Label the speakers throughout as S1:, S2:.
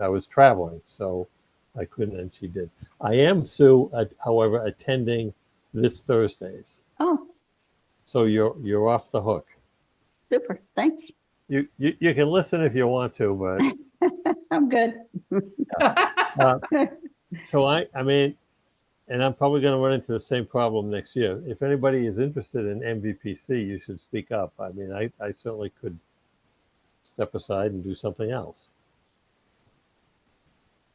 S1: I was traveling, so I couldn't, and she did. I am, Sue, uh, however, attending this Thursday's,
S2: Oh,
S1: so you're, you're off the hook.
S2: super. Thanks.
S1: You, you, you can listen if you want to, but
S2: I'm good.
S1: So I, I mean, and I'm probably going to run into the same problem next year. If anybody is interested in MVPC, you should speak up. I mean, I, I certainly could step aside and do something else.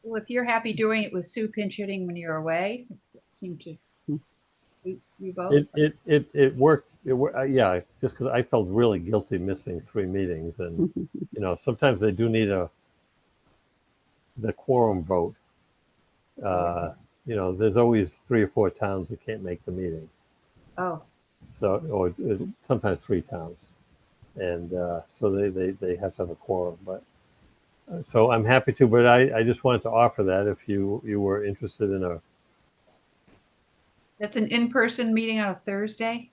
S3: Well, if you're happy doing it with Sue pinch hitting when you're away, it seemed to suit you both.
S1: Hmm. It, it, it, it worked. It, wor- uh, yeah, just because I felt really guilty missing three meetings, and you know, sometimes they do need a the quorum vote. Uh, you know, there's always three or four towns that can't make the meeting.
S3: Oh,
S1: so or uh, sometimes three times and uh, so they, they they have to have a quorum but uh, so i'm happy to but i i just wanted to offer that if you you were interested in a
S3: that's an in-person meeting on a Thursday?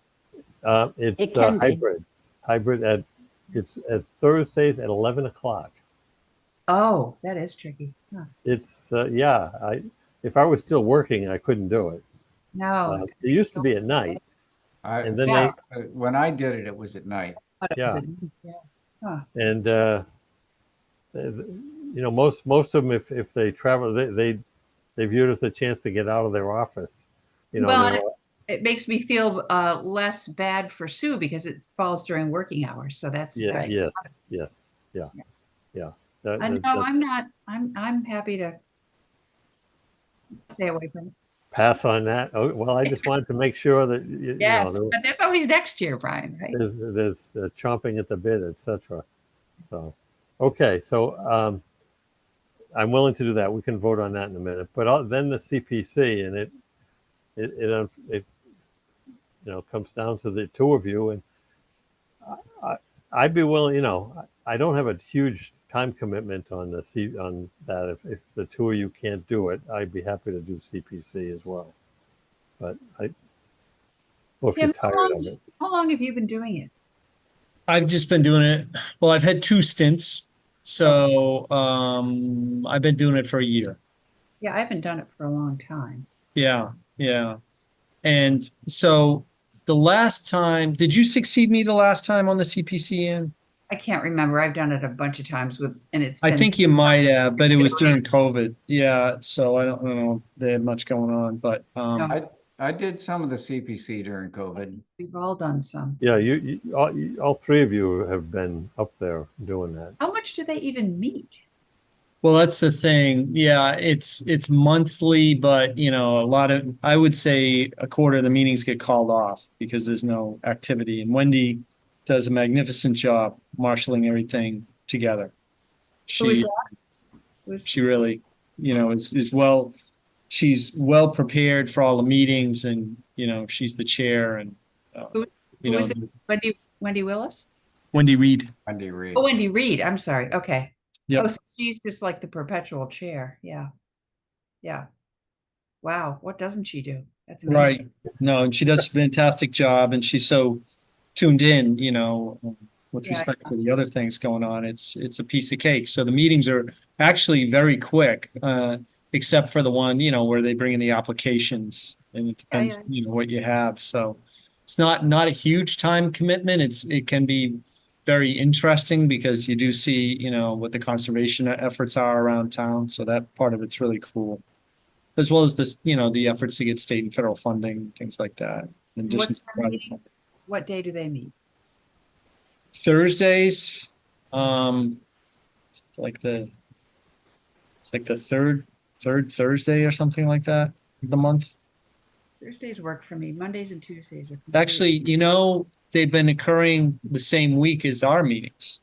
S1: uh, it's
S2: It
S1: uh,
S2: can be.
S1: hybrid hybrid at it's at thursdays at 11 o'clock
S3: Oh, that is tricky. Huh.
S1: it's uh, yeah i if i was still working i couldn't do it uh,
S3: No.
S1: it used to be at night
S4: I,
S1: and then
S3: Oh, Yeah.
S4: uh, when I did it, it was at night.
S3: I thought it was a-
S1: they and uh, th- th- you know most most of them if if they travel they they, they view it as a chance to get out of their office you know
S3: Well,
S1: they're-
S3: It makes me feel uh, less bad for Sue because it falls during working hours. So that's,
S1: Yeah,
S3: right.
S1: yes, yes, yeah, yeah. That-
S3: I know,
S1: that- that-
S3: I'm not, I'm, I'm happy to stay away from it.
S1: Pass on that. Oh, well, I just wanted to make sure that, y- you know,
S3: Yes,
S1: there-
S3: but there's always next year, Brian, right?
S1: there's, there's uh, chomping at the bit, et cetera. So, okay, so, um, I'm willing to do that. We can vote on that in a minute, but I'll- then the CPC and it, it, it, um, it, you know, comes down to the two of you and I, I- I'd be willing, you know, I- I don't have a huge time commitment on the C, on that. If, if the two of you can't do it, I'd be happy to do CPC as well. But I, well, if you're
S3: Tim, um, how
S1: tired
S3: long
S1: of
S3: do
S1: it.
S3: How long have you been doing it?
S5: I've just been doing it. Well, I've had two stints, so um, I've been doing it for a year.
S3: Yeah, I haven't done it for a long time.
S5: Yeah, yeah. And so the last time, did you succeed me the last time on the CPC? Ann?
S3: I can't remember. I've done it a bunch of times with, and it's.
S5: I
S3: been-
S5: think you might have, but it was
S3: Yeah.
S5: during COVID. Yeah, so I don't, I don't know. They had much going on, but um,
S3: No.
S4: I, I did some of the CPC during COVID.
S3: We've all done some.
S1: Yeah, you, you, all, you, all three of you have been up there doing that.
S3: How much do they even meet?
S5: well, that's the thing. Yeah, it's it's monthly, but you know, a lot of I would say a quarter of the meetings get called off because there's no activity. And Wendy does a magnificent job marshaling everything
S3: Who
S5: together.
S3: is
S5: She
S3: that? Who's-
S5: she really, you know, is, is well, she's well prepared for all the meetings and, you know, she's the chair and, uh,
S3: Who-
S5: you
S3: who
S5: know,
S3: is it? Wendy, Wendy Willis?
S5: Wendy Reed.
S4: Wendy Reed.
S3: Oh, Wendy Reed. I'm sorry. Okay.
S5: Yep.
S3: Oh, so she's just like the perpetual chair. Yeah. Yeah. Wow. What doesn't she do? That's amazing.
S5: Right. No, and she does a fantastic job and she's so tuned in, you know, with
S3: Yeah.
S5: respect to the other things going on. It's, it's a piece of cake. So the meetings are actually very quick, uh, except for the one, you know, where they bring in the applications and it
S3: Yeah,
S5: depends,
S3: Oh, yeah.
S5: you know, what you have. So it's not, not a huge time commitment. It's, it can be very interesting because you do see, you know, what the conservation efforts are around town. So that part of it's really cool as well as this, you know, the efforts to get state and federal funding, things like that. in addition
S3: What's
S5: to
S3: the
S5: private
S3: meeting?
S5: funding.
S3: What day do they meet?
S5: Thursdays, um, it's like the, it's like the third, third Thursday or something like that, of the month.
S3: Thursdays work for me. Mondays and Tuesdays are. completely-
S5: Actually, you know, they've been occurring the same week as our meetings.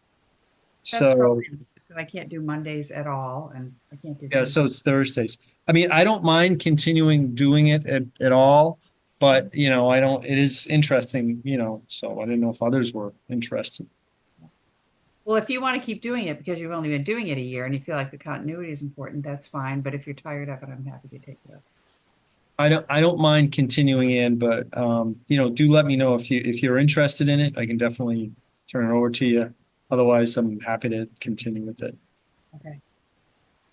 S3: That's
S5: So,
S3: probably- so I can't do Mondays at all and I can't do.
S5: yeah, so it's Thursdays. I mean, I don't mind continuing doing it at, at all, but, you know, I don't, it is interesting, you know, so I didn't know if others were interested.
S3: Well, if you want to keep doing it because you've only been doing it a year and you feel like the continuity is important, that's fine. But if you're tired of it, I'm happy to take it up.
S5: I don't, I don't mind continuing in, but, um, you know, do let me know if you, if you're interested in it. I can definitely turn it over to you. Otherwise, I'm happy to continue with it.
S3: Okay.